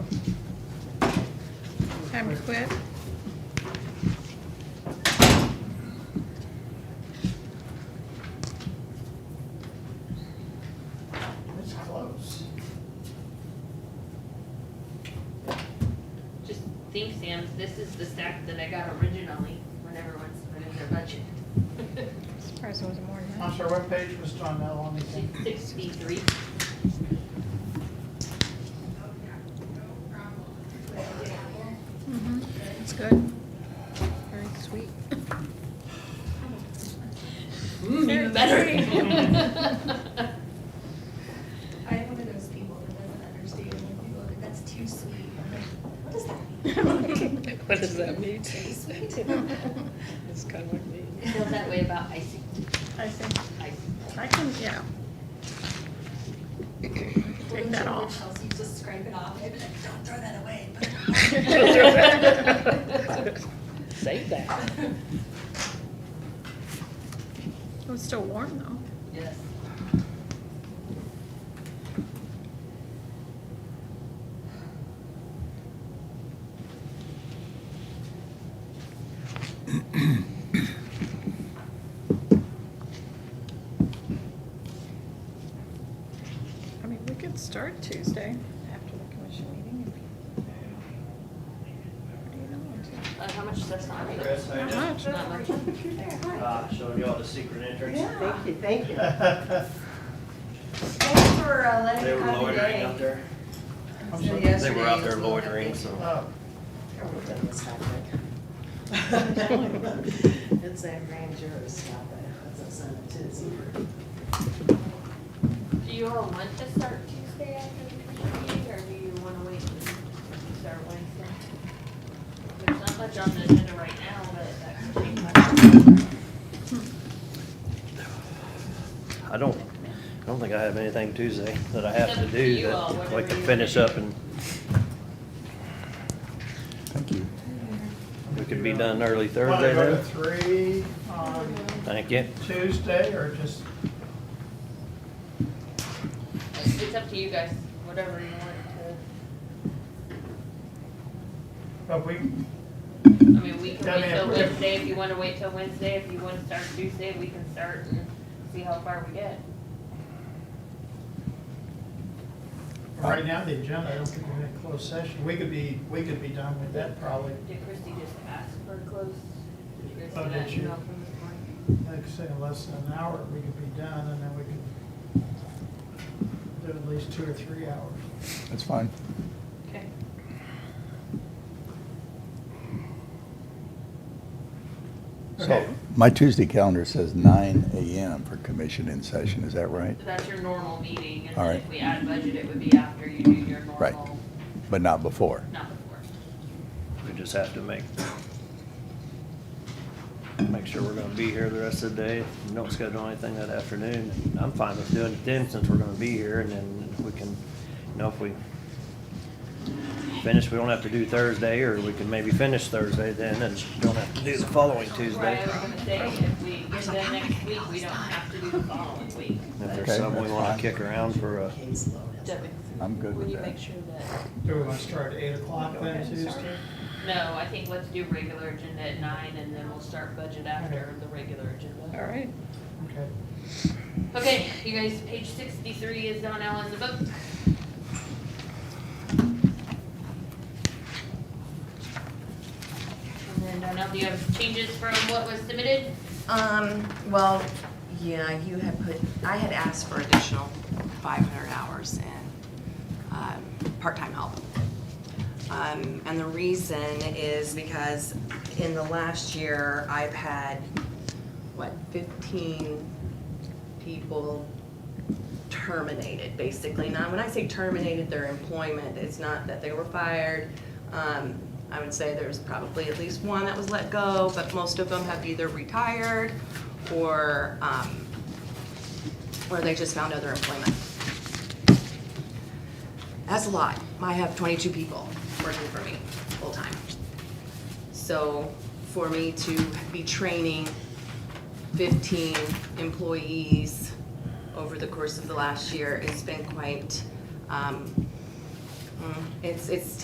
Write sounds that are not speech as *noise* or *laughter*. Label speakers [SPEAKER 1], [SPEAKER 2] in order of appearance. [SPEAKER 1] time to quit?
[SPEAKER 2] It's close.
[SPEAKER 3] Just think, Sam, this is the stack that I got originally when everyone submitted their budget.
[SPEAKER 1] Surprised it wasn't more than
[SPEAKER 2] I'm
[SPEAKER 1] that.
[SPEAKER 2] sorry, what page was John Mel on again?
[SPEAKER 3] Sixty-three.
[SPEAKER 1] Mhm. It's good. Very sweet.
[SPEAKER 3] Mm,
[SPEAKER 4] Hmm,
[SPEAKER 3] even *laughs* better.
[SPEAKER 5] I'm one of those people that doesn't understand when people are like, that's too sweet. I'm like, what does
[SPEAKER 6] What does
[SPEAKER 5] that
[SPEAKER 6] that mean?
[SPEAKER 5] mean?
[SPEAKER 1] *laughs*
[SPEAKER 5] Too sweet?
[SPEAKER 6] It's kind of like me.
[SPEAKER 3] Feel that way about icing,
[SPEAKER 1] I think,
[SPEAKER 3] icing.
[SPEAKER 1] *laughs*
[SPEAKER 4] *laughs*
[SPEAKER 1] I can, *laughs* yeah. Take that off.
[SPEAKER 5] Chelsea, just scrape it off. I'd be like, don't throw that away. Put it
[SPEAKER 6] Save that.
[SPEAKER 1] It was still warm though.
[SPEAKER 3] Yes.
[SPEAKER 1] I mean, we could start Tuesday after the commission meeting. if you want to.
[SPEAKER 3] Uh, how much does that sound?
[SPEAKER 7] Chris, I
[SPEAKER 1] Not
[SPEAKER 7] just,
[SPEAKER 1] much.
[SPEAKER 3] Not much.
[SPEAKER 7] uh, showed y'all the secret entrance.
[SPEAKER 6] Thank you, thank you.
[SPEAKER 4] Thanks for uh, letting
[SPEAKER 7] *laughs* They
[SPEAKER 4] me
[SPEAKER 7] were
[SPEAKER 4] come
[SPEAKER 7] loitering
[SPEAKER 4] today.
[SPEAKER 7] out there.
[SPEAKER 2] I'm sorry.
[SPEAKER 4] Yes.
[SPEAKER 7] They were out there loitering, so.
[SPEAKER 2] Oh,
[SPEAKER 4] It's that grand jury stop, that's a sentence, it's over.
[SPEAKER 3] Do you all want to start Tuesday after the commission meeting, or do you wanna wait and start Wednesday? There's not much on the agenda right now, but that could change
[SPEAKER 7] I don't, I don't think I have anything Tuesday that I have
[SPEAKER 3] It's
[SPEAKER 7] to
[SPEAKER 3] up to
[SPEAKER 7] do
[SPEAKER 3] you all,
[SPEAKER 7] that we
[SPEAKER 3] whatever
[SPEAKER 7] can
[SPEAKER 3] you
[SPEAKER 7] finish
[SPEAKER 3] think.
[SPEAKER 7] up and
[SPEAKER 8] Thank you.
[SPEAKER 7] we could be done early
[SPEAKER 2] want to
[SPEAKER 7] Thursday
[SPEAKER 2] go to
[SPEAKER 7] then.
[SPEAKER 2] three on
[SPEAKER 7] Thank you.
[SPEAKER 2] Tuesday or just,
[SPEAKER 3] It's it's up to you guys, whatever you want
[SPEAKER 2] but we,
[SPEAKER 3] to, I mean, we can
[SPEAKER 2] Yeah, I mean,
[SPEAKER 3] wait till
[SPEAKER 2] if we're-
[SPEAKER 3] Wednesday, if you wanna wait till Wednesday, if you wanna start Tuesday, we can start and see how far we get.
[SPEAKER 2] right now, the agenda, I don't think we're in a closed session. We could be, we could be done with that probably,
[SPEAKER 3] Did Christie just ask for a close? Did you guys
[SPEAKER 2] Oh,
[SPEAKER 3] see that
[SPEAKER 2] did she?
[SPEAKER 3] email from this morning?
[SPEAKER 2] like I say, in less than an hour, we could be done and then we could do at least two or three hours.
[SPEAKER 8] That's fine.
[SPEAKER 3] Okay.
[SPEAKER 8] So my Tuesday calendar says nine AM for commission in session, is that right?
[SPEAKER 3] So that's your normal meeting, and
[SPEAKER 8] All
[SPEAKER 3] then
[SPEAKER 8] right.
[SPEAKER 3] if we add budget, it would be after you do your
[SPEAKER 8] Right.
[SPEAKER 3] normal,
[SPEAKER 8] But not before.
[SPEAKER 3] not before.
[SPEAKER 7] We just have to make, make sure we're gonna be here the rest of the day. We Don't schedule anything that afternoon. I'm fine with doing it then since we're gonna be here and then we can, you know, if we finish, we don't have to do Thursday or we can maybe finish Thursday then and don't have to do the following Tuesday.
[SPEAKER 3] Right, I was gonna say, if we get to next week, we don't have to do the following week.
[SPEAKER 7] If there's
[SPEAKER 8] Okay,
[SPEAKER 7] something we
[SPEAKER 8] that's
[SPEAKER 7] wanna
[SPEAKER 8] fine.
[SPEAKER 7] kick around for a,
[SPEAKER 3] Debbie,
[SPEAKER 8] I'm good
[SPEAKER 3] Would
[SPEAKER 8] with
[SPEAKER 3] you
[SPEAKER 8] that.
[SPEAKER 3] make sure that,
[SPEAKER 2] Do we want to start at eight o'clock then Tuesday?
[SPEAKER 3] no, I think let's do regular agenda at nine, and then we'll start budget after the regular agenda.
[SPEAKER 1] All right.
[SPEAKER 2] Okay.
[SPEAKER 3] Okay, you guys, page sixty-three is Don Allen's book. And then, Donnell, do you have changes from what was submitted?
[SPEAKER 4] Um, well, yeah, you had put, I had asked for additional five hundred hours in, um, part-time help. Um, and the reason is because in the last year, I've had, what, fifteen people terminated, basically. Now, when I say terminated their employment, it's not that they were fired. Um, I would say there's probably at least one that was let go, but most of them have either retired or, um, or they just found other employment. That's a lot. I have twenty-two people working for me, full-time. So for me to be training 15 employees over the course of the last year. It's been quite, um, mm, it's, it's